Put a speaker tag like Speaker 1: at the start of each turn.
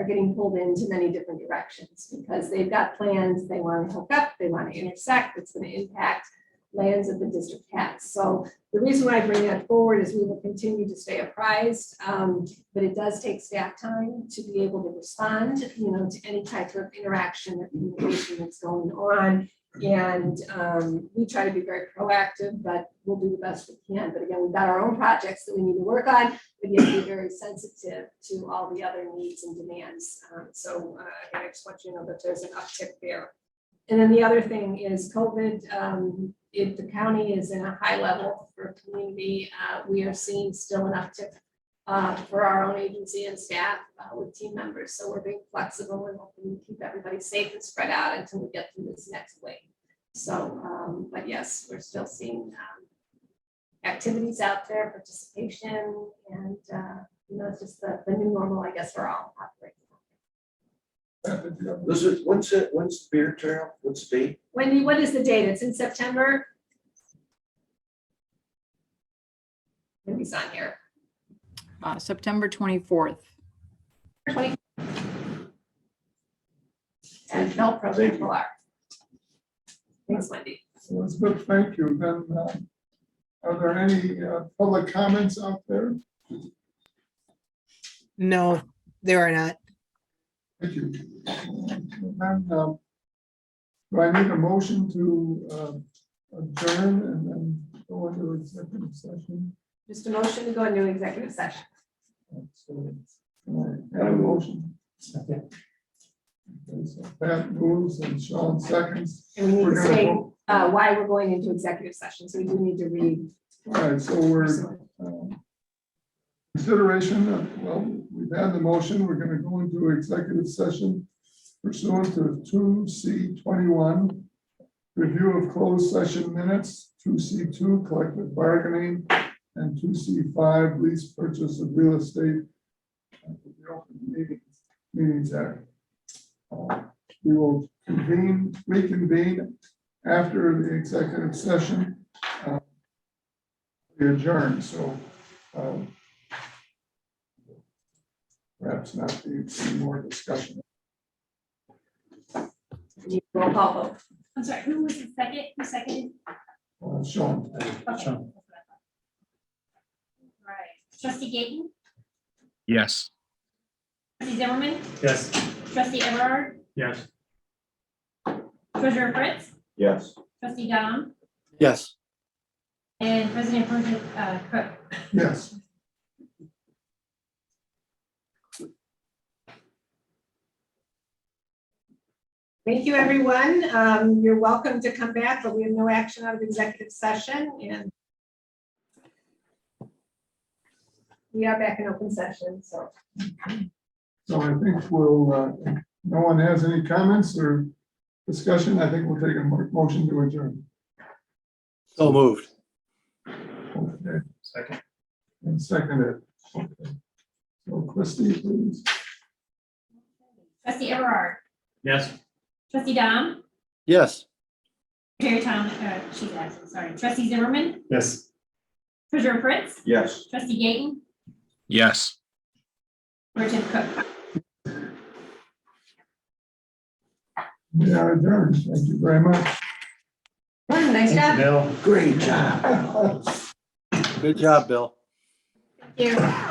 Speaker 1: getting pulled into many different directions because they've got plans, they want to hook up, they want to intersect, it's going to impact lands that the district has. So the reason why I bring that forward is we will continue to stay apprised, um, but it does take staff time to be able to respond, you know, to any type of interaction or communication that's going on. And um, we try to be very proactive, but we'll do the best we can. But again, we've got our own projects that we need to work on but yet be very sensitive to all the other needs and demands. Um, So uh, again, I just want you to know that there's an uptick there. And then the other thing is COVID, um, if the county is in a high level for community, uh, we are seeing still an uptick uh, for our own agency and staff uh, with team members. So we're being flexible and hoping to keep everybody safe and spread out until we get through this next wave. So, um, but yes, we're still seeing um, activities out there, participation, and, uh, you know, it's just the, the new normal, I guess, we're all operating. on.
Speaker 2: This is, when's it, when's the beer trail? What's the date?
Speaker 1: Wendy, what is the date? It's in September? Wendy's on here.
Speaker 3: Uh, September 24th.
Speaker 1: Twenty. And no problem, people are. Thanks, Wendy.
Speaker 4: Elizabeth, thank you. Then, uh, are there any uh, public comments out there?
Speaker 5: No, there are not.
Speaker 4: Thank you. Then, um, Do I need a motion to uh, adjourn and then go into executive session?
Speaker 1: Just a motion to go into executive session.
Speaker 4: So, can I Have a motion. Okay, So Pat moves and Sean seconds.
Speaker 1: And we need
Speaker 4: We're
Speaker 1: to
Speaker 4: gonna
Speaker 1: say,
Speaker 4: vote.
Speaker 1: uh, why we're going into executive session, so we do need to read.
Speaker 4: All right, so we're um, Consideration, of- well, we've had the motion, we're gonna go into executive session pursuant to two C twenty-one. Review of closed session minutes, two C two collective bargaining, and two C five lease purchase of real estate. under the Open Meetings- Meetings Act. Uh, We will convene, reconvene after the executive session. uh, We adjourn, so um, Perhaps not need any more discussion.
Speaker 1: Roll call vote.
Speaker 6: I'm sorry, who was the second, who seconded?
Speaker 4: Uh, Sean,
Speaker 6: Okay. Right, trustee Gayton,
Speaker 7: Yes.
Speaker 6: trustee Zimmerman,
Speaker 8: Yes.
Speaker 6: trustee Everard,
Speaker 8: Yes.
Speaker 6: treasurer Fritz,
Speaker 2: Yes.
Speaker 6: trustee Dom,
Speaker 2: Yes.
Speaker 6: and president Pro Tem, uh, Cook.
Speaker 4: yes.
Speaker 1: Thank you, everyone. Um, You're welcome to come back, but we have no action out of executive session and we are back in open session, so.
Speaker 4: So I think we'll, uh, if no one has any comments or discussion. I think we'll take a mo- motion to adjourn.
Speaker 2: So moved.
Speaker 4: Okay. Second. And second it. Okay. So Christie, please.
Speaker 6: Trustee Everard,
Speaker 8: Yes.
Speaker 6: trustee Dom,
Speaker 2: Yes.
Speaker 6: Terry Tom, uh, she's absent, sorry, trustee Zimmerman,
Speaker 8: Yes.
Speaker 6: treasurer Fritz,
Speaker 2: Yes.
Speaker 6: trustee Gayton,
Speaker 7: Yes.
Speaker 6: Pro Tem Cook.
Speaker 4: We are adjourned. Thank you very much.
Speaker 1: Nice job.
Speaker 8: Bill.
Speaker 2: Great job. Good job, Bill.
Speaker 1: Thank you.